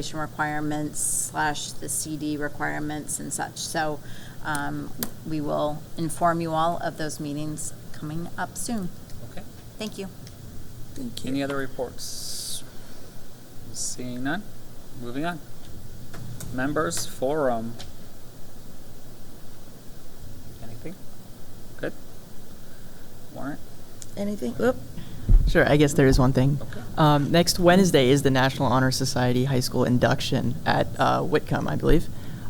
registration requirements slash the CD requirements and such. So um, we will inform you all of those meetings coming up soon. Okay. Thank you. Thank you. Any other reports? Seeing none, moving on. Members forum. Anything? Good? Warrant? Anything? Oop. Sure, I guess there is one thing. Okay. Um, next Wednesday is the National Honor Society High School induction at uh, Whitcomb, I believe.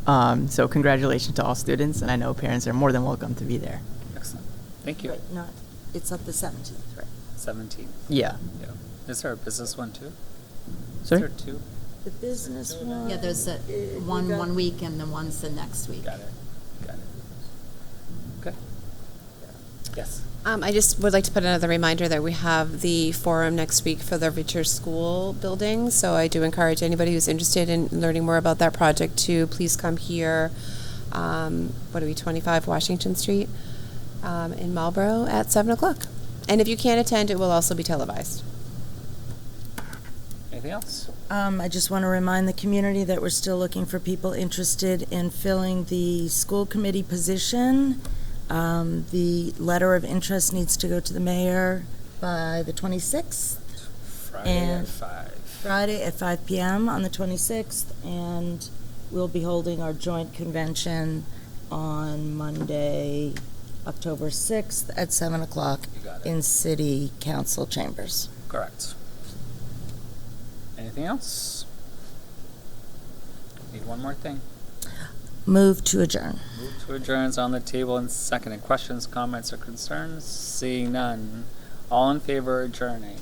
Um, so congratulations to all students, and I know parents are more than welcome to be there. Excellent. Thank you. Right, not, it's up the seventeenth, right? Seventeen. Yeah. Yeah. Is there a business one too? Sorry? Is there two? The business one. Yeah, there's a, eh, we one, got- one week and then one's the next week. Uh, Got it. Got it. Okay. Yes. Um, I just would like to put another reminder that we have the forum next week for the Richer School building. So I do encourage anybody who's interested in learning more about that project to please come here. Um, what are we, 25 Washington Street um, in Marlboro at 7 o'clock. And if you can't attend, it will also be televised. Anything else? Um, I just want to remind the community that we're still looking for people interested in filling the school committee position. Um, the letter of interest needs to go to the mayor by the twenty-sixth, Friday at And- five. Friday at five PM on the twenty-sixth, and we'll be holding our joint convention on Monday, October sixth at seven o'clock You got it. in city council chambers. Correct. Anything else? Need one more thing. Move to adjourn. Move to adjourns on the table and seconded. Questions, comments, or concerns? Seeing none. All in favor of adjourning?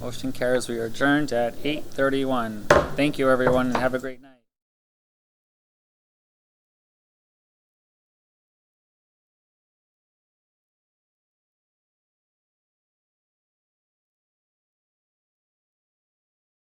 Motion carries. We are adjourned at 8:31. Thank you, everyone, and have a great night.